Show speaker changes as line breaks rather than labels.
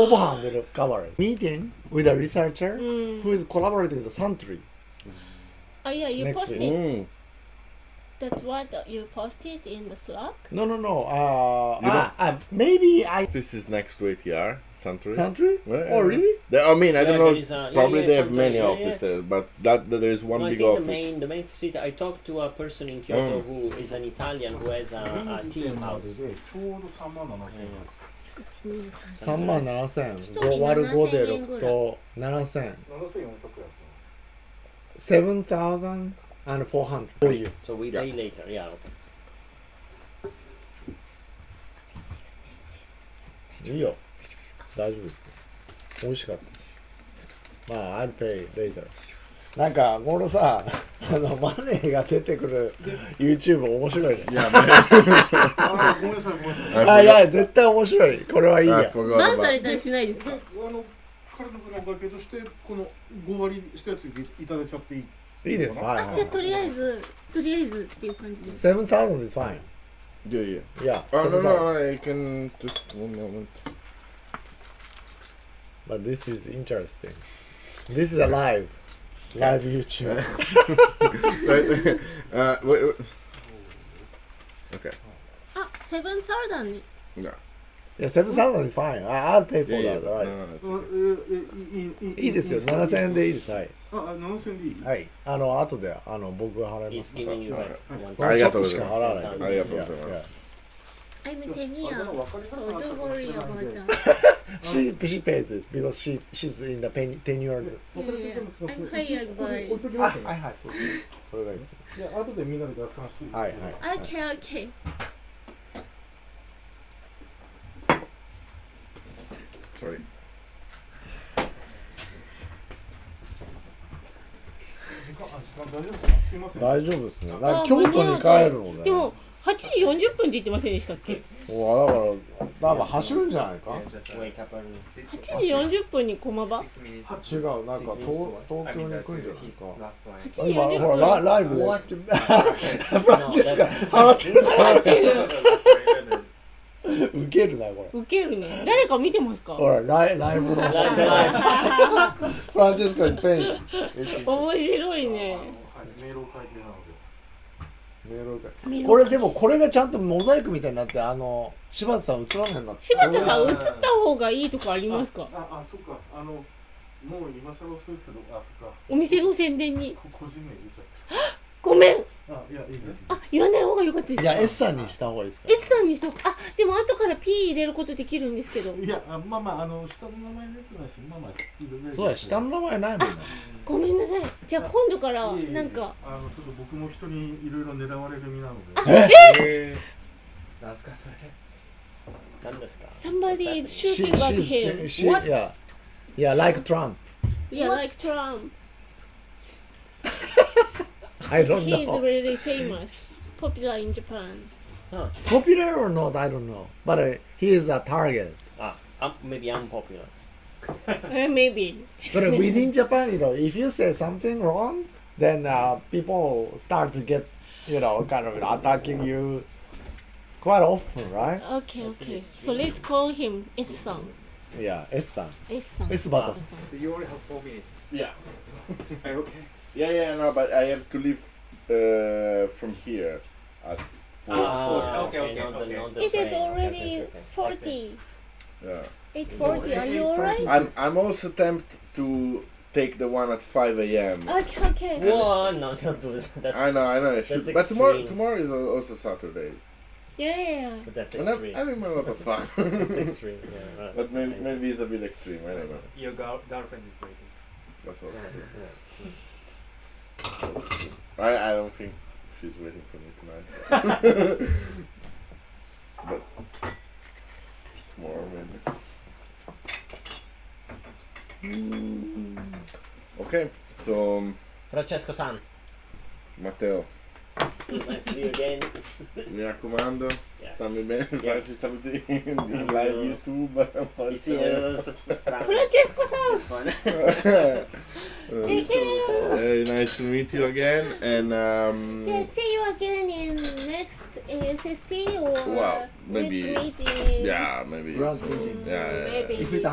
Kobohan will cover meeting with a researcher
Mm.
who is collaborating with Santry.
Oh yeah, you
Next
posted.
week.
Mm.
That's what you posted in the Slack.
No, no, no. Uh,
You
ah, ah, maybe I
This is next to ATR, Santry.
Santry.
Yeah, yeah,
oh,
yeah.
really?
They, I mean, I
Yeah,
don't know.
there is a- yeah,
probably
yeah,
they have
Santry,
many
yeah, yeah.
offices, but that, that there is one
No, I
big
think
office.
the main the main facility. I talked to a person in Kyoto
Mm.
who is an Italian who has a, a
現時
team
点ま
house.
ででちょうど3万7千円です。
3万7千
一人
5割る5で
7000円ぐら
6
い
と7千
7400円ですね。
7400 for you
So we
Yeah.
pay later. Yeah. Okay.
いいよ大丈夫です美味しかったまあ I'll pay later なんかこのさあのマネーが出てくる YouTube 面白いね
Yeah, man.
あー、ごめんなさい、ごめんなさい。
Ah,
I
あい
forgot,
や絶対面白いこれはいい
I
や
forgot
バン
about-
されたりしないですか
で、あの、彼の分のお会計として、この5割したやついただいちゃっていい
いいですはいはい
じゃあとりあえずとりあえずっていう感じです
7000 is fine
Yeah, yeah.
いや
Oh, no,
7000
no, I can just one moment.
but this is interesting this is a live live YouTube
Wait, uh, wait, wait.
あセブンターダンに
No.
いや7000 is fine I- I'll pay for
Yeah,
that
yeah. No,
right
no, it's okay.
あええい
い
いいい
いですよ、7000円でいいです。はい。
あ、あ7000円でいい
はい。あの、後で、あの、僕が払いま
He's
す。
giving you
Alright.
back. one
そのちょっとしか払わない。。
ありがとうございます
I'm ten
あ
year
でも分かりやす
so
くなっちゃ
don't
うかもし
worry
れないんで
about
分
that
か
She, she pays it because she, she's in the ten, ten year old.
りやすいでも
I'm hired
これ
by
置いときますね。
いはい、そうです。それがいいです。
で後でみんなで合算して。
はいはい。
Okay okay
それ。
時間、あ時間大丈夫ですかすいません。
大丈夫ですね。だから京都に帰るのね。
でも8時40分って言ってませんでしたっけ
も、だから、なんか走るんじゃないか
uh,
Wake up and
8時40分に駒場8
違う、なんか東東京に行くんじゃないか。
時
今、
40
ほ
分
ら、ラライブで。フランチェ スカ、払ってる
払ってる
ウケるな、これ。
ウケるね誰か見てますか
ほら、ライライブの。フランチェスカ、スペイン。
面白いね
はい、メールを書いてなので。
メールが
メロン
これでもこれがちゃんとモザイクみたいになってあの柴田さん映らんようになって
柴田さん映った方がいいとかありますか
あ、あ、そっか。あの、もう今更遅いですけど、あ、そっか。
お店の宣伝に
こ個人名言っちゃって
ごめん
る。あ、いや、いいです。
あ言わない方が良かったです
いや S さんにした方がいいですか
S さんにしたあでも後から P 入れることできるんですけど
いや、あまあまあ、あの、下の名前出てないし、まあまあ、いろいろ。
そうだ下の名前ないもんね
ごめんなさいじゃあ今度から
いえいえ
なんか
あのちょっと僕も人にいろいろ狙われる身なので
何ですか
somebody is
She-
shooting at
she's-
him
she- yeah yeah like Trump
yeah like Trump
I don't
he is
know
really famous popular in Japan
popular or not I don't know but uh, he is a target
あ、あ Ah, maybe unpopular.
Eh, maybe
but uh, within Japan you know if you say something wrong then uh, people start to get you know kind of attacking you quite often right
okay okay so let's call him S さん
yeah S さん
S さん
S バタさん
So you only have four minutes.
Yeah.
Are you okay?
Yeah, yeah, no, but I have to leave uh, from here at four.
Ah,
okay, okay,
not the-
okay.
not the
it is
same.
already
Okay, okay,
forty
Yeah.
eight forty are you alright
I'm I'm also tempted to take the one at five a.m.
okay okay
okay. Whoa, no, don't do that. That's,
I know, I know, I should.
That's
but tomorrow,
extreme.
tomorrow is al- also Saturday,
yeah yeah
but that's
and I'm
extreme.
having a lot of fun.
That's extreme. Yeah, right.
but maybe,
Amazing.
maybe it's a bit extreme. I don't know.
Your girl- girlfriend is waiting.
That's all.
Yeah, yeah.
I I don't think she's waiting for me tonight. but tomorrow maybe. Okay, so um,
Francesco-san,
Matteo,
nice to see you again.
mi raccomando,
Yes.
stammi bene,
Yes.
farci saluti in, in live YouTube. poi
It's uh, strano.
フランチェスコさん
Uh,
Take care
Very nice to meet you again, and um,
Yeah, see you again in next ASSC or
Well, maybe-
next meeting.
yeah, maybe.
Grand
so-
meeting.
yeah, yeah, yeah.
Maybe.
if it